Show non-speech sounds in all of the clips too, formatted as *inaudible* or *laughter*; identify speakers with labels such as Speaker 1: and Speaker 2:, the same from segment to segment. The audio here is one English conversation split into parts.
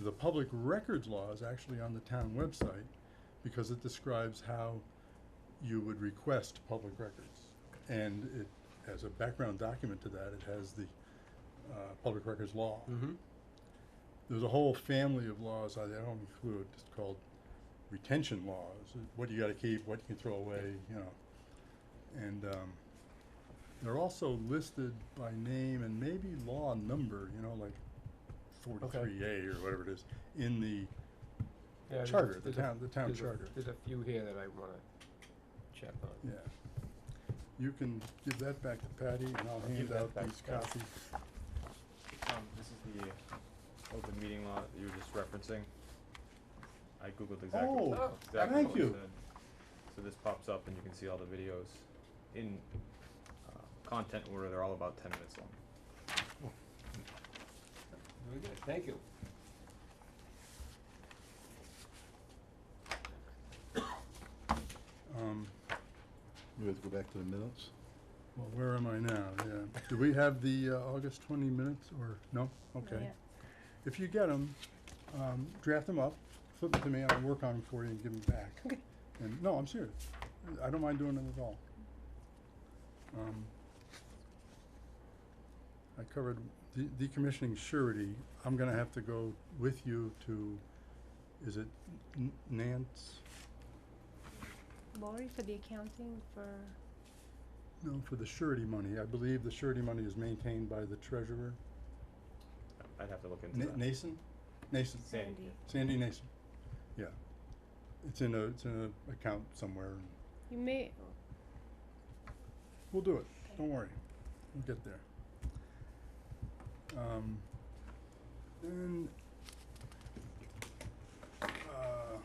Speaker 1: The public records law is actually on the town website because it describes how you would request public records. And it, as a background document to that, it has the, uh, public records law.
Speaker 2: Mm-hmm.
Speaker 1: There's a whole family of laws I I don't include, it's called retention laws, what you gotta keep, what you can throw away, you know. And, um, they're also listed by name and maybe law number, you know, like forty-three A or whatever it is, in the charter, the town, the town charter.
Speaker 2: There's a few here that I wanna check on.
Speaker 1: Yeah. You can give that back to Patty and I'll
Speaker 3: give
Speaker 1: hand
Speaker 3: that
Speaker 1: out
Speaker 3: back
Speaker 1: these
Speaker 3: to Patty.
Speaker 1: copies.
Speaker 3: Um, this is the uh, open meeting law that you were just referencing. I googled exactly.
Speaker 1: Oh,
Speaker 2: Oh,
Speaker 3: exactly
Speaker 1: thank
Speaker 3: what it
Speaker 1: you.
Speaker 3: said. So this pops up and you can see all the videos in, uh, content order, they're all about ten minutes long.
Speaker 2: Very good, thank you.
Speaker 1: Um,
Speaker 4: You have to go back to the minutes?
Speaker 1: well, where am I now? Yeah. Do we have the, uh, August twenty minutes or, no? Okay.
Speaker 5: yet.
Speaker 1: If you get them, um, draft them up, flip them to me, I'll work on them for you and give them back.
Speaker 5: Okay.
Speaker 1: And, no, I'm serious. I don't mind doing it at all. Um, I covered de- decommissioning surety. I'm gonna have to go with you to, is it N- Nance?
Speaker 5: Lori for the accounting for,
Speaker 1: No, for the surety money. I believe the surety money is maintained by the treasurer.
Speaker 3: I'd have to look into
Speaker 1: Na-
Speaker 3: that.
Speaker 1: Nason? Nason,
Speaker 3: Sandy.
Speaker 5: Sandy.
Speaker 1: Sandy Nason. Yeah. It's in a, it's in a account somewhere.
Speaker 5: you may,
Speaker 1: We'll do it. Don't worry. We'll get there. Um, then, uh,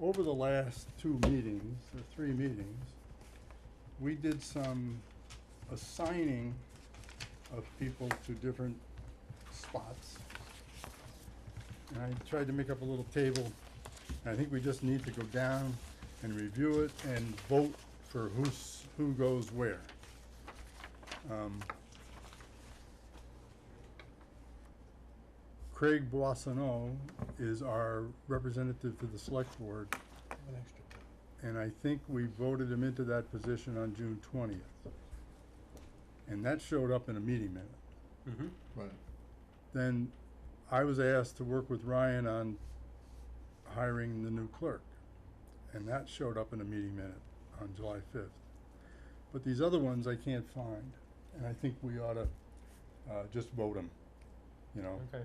Speaker 1: over the last two meetings, or three meetings, we did some assigning of people to different spots. And I tried to make up a little table. I think we just need to go down and review it and vote for who's, who goes where. Um, Craig Boissonneau is our representative to the select board,
Speaker 4: An extra pen.
Speaker 1: and I think we voted him into that position on June twentieth. And that showed up in a meeting minute.
Speaker 2: Mm-hmm.
Speaker 4: Right.
Speaker 1: Then I was asked to work with Ryan on hiring the new clerk. And that showed up in a meeting minute on July fifth. But these other ones I can't find, and I think we oughta, uh, just vote them, you know?
Speaker 2: Okay.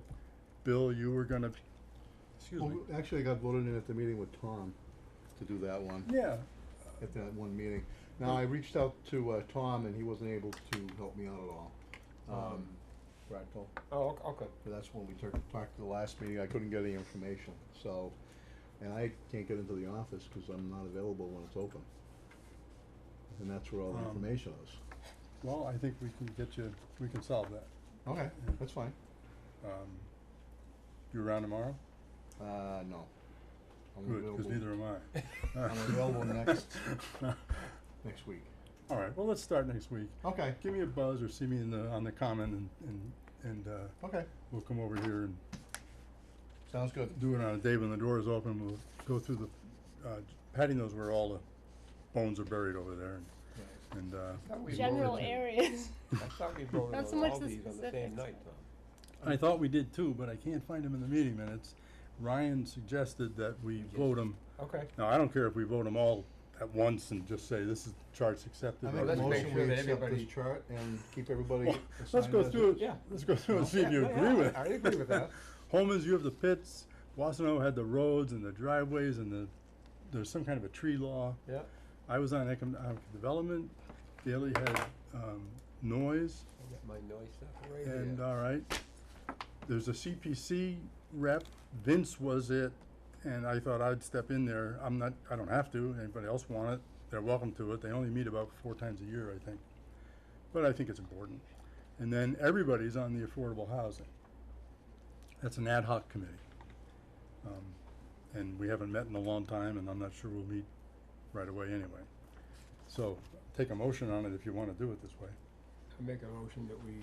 Speaker 1: Bill, you were gonna, excuse
Speaker 4: Well,
Speaker 1: me,
Speaker 4: actually, I got voted in at the meeting with Tom to do that one,
Speaker 1: yeah,
Speaker 4: at that one meeting. Now, I reached out to, uh, Tom and he wasn't able to help me out at all.
Speaker 1: Oh.
Speaker 4: Um, Fractal,
Speaker 2: Oh, ok- okay.
Speaker 4: but that's when we tur- talked to the last meeting, I couldn't get any information, so, and I can't get into the office because I'm not available when it's open. And that's where all the
Speaker 1: Um,
Speaker 4: information is.
Speaker 1: well, I think we can get you, we can solve that.
Speaker 4: Okay, that's fine.
Speaker 1: Um, you around tomorrow?
Speaker 4: Uh, no. I'm
Speaker 1: Good, cause
Speaker 4: available
Speaker 1: neither am I.
Speaker 4: *laughs* I'm available next-
Speaker 1: *laughs*
Speaker 4: Next week.
Speaker 1: Alright, well, let's start next week.
Speaker 4: Okay,
Speaker 1: Give me a buzz or see me in the, on the common and, and, and, uh,
Speaker 4: okay,
Speaker 1: we'll come over here and
Speaker 4: sounds good.
Speaker 1: do it on a day when the door is open, we'll go through the, uh, Patty knows where all the bones are buried over there and, and, uh,
Speaker 2: I thought we
Speaker 5: general
Speaker 2: voted-
Speaker 5: areas. *laughs*
Speaker 2: I
Speaker 1: *laughs*
Speaker 2: thought we voted
Speaker 5: Not so
Speaker 2: on
Speaker 5: much
Speaker 2: all
Speaker 5: the
Speaker 2: these on the same
Speaker 5: specifics.
Speaker 2: night, Tom.
Speaker 1: I thought we did too, but I can't find them in the meeting minutes. Ryan suggested that we vote them,
Speaker 2: Okay.
Speaker 1: now I don't care if we vote them all at once and just say this is charts accepted.
Speaker 4: I
Speaker 1: or
Speaker 4: make a
Speaker 2: let's
Speaker 1: not.
Speaker 2: make
Speaker 4: motion
Speaker 2: sure
Speaker 4: we
Speaker 2: that
Speaker 4: accept
Speaker 2: everybody-
Speaker 4: this chart and keep everybody *laughs*
Speaker 1: Well, Let's
Speaker 4: assigned
Speaker 1: go
Speaker 4: as
Speaker 1: through
Speaker 4: it.
Speaker 1: it,
Speaker 2: yeah.
Speaker 1: let's go through and see if you
Speaker 2: Yeah, yeah,
Speaker 1: agree with it.
Speaker 4: I agree with that.
Speaker 1: *laughs* Holman's, you have the pits, Wasano had the roads and the driveways and the, there's some kind of a tree law.
Speaker 2: Yeah.
Speaker 1: I was on economic development, Daley had, um, noise,
Speaker 2: I got my noise stuff right here.
Speaker 1: and, uh, all right. There's a CPC rep, Vince was it, and I thought I'd step in there, I'm not, I don't have to, anybody else want it, they're welcome to it, they only meet about four times a year, I think. But I think it's important. And then everybody's on the affordable housing. That's an ad hoc committee. Um, and we haven't met in a long time, and I'm not sure we'll meet right away anyway. So, take a motion on it if you wanna do it this way.
Speaker 2: I make a motion that we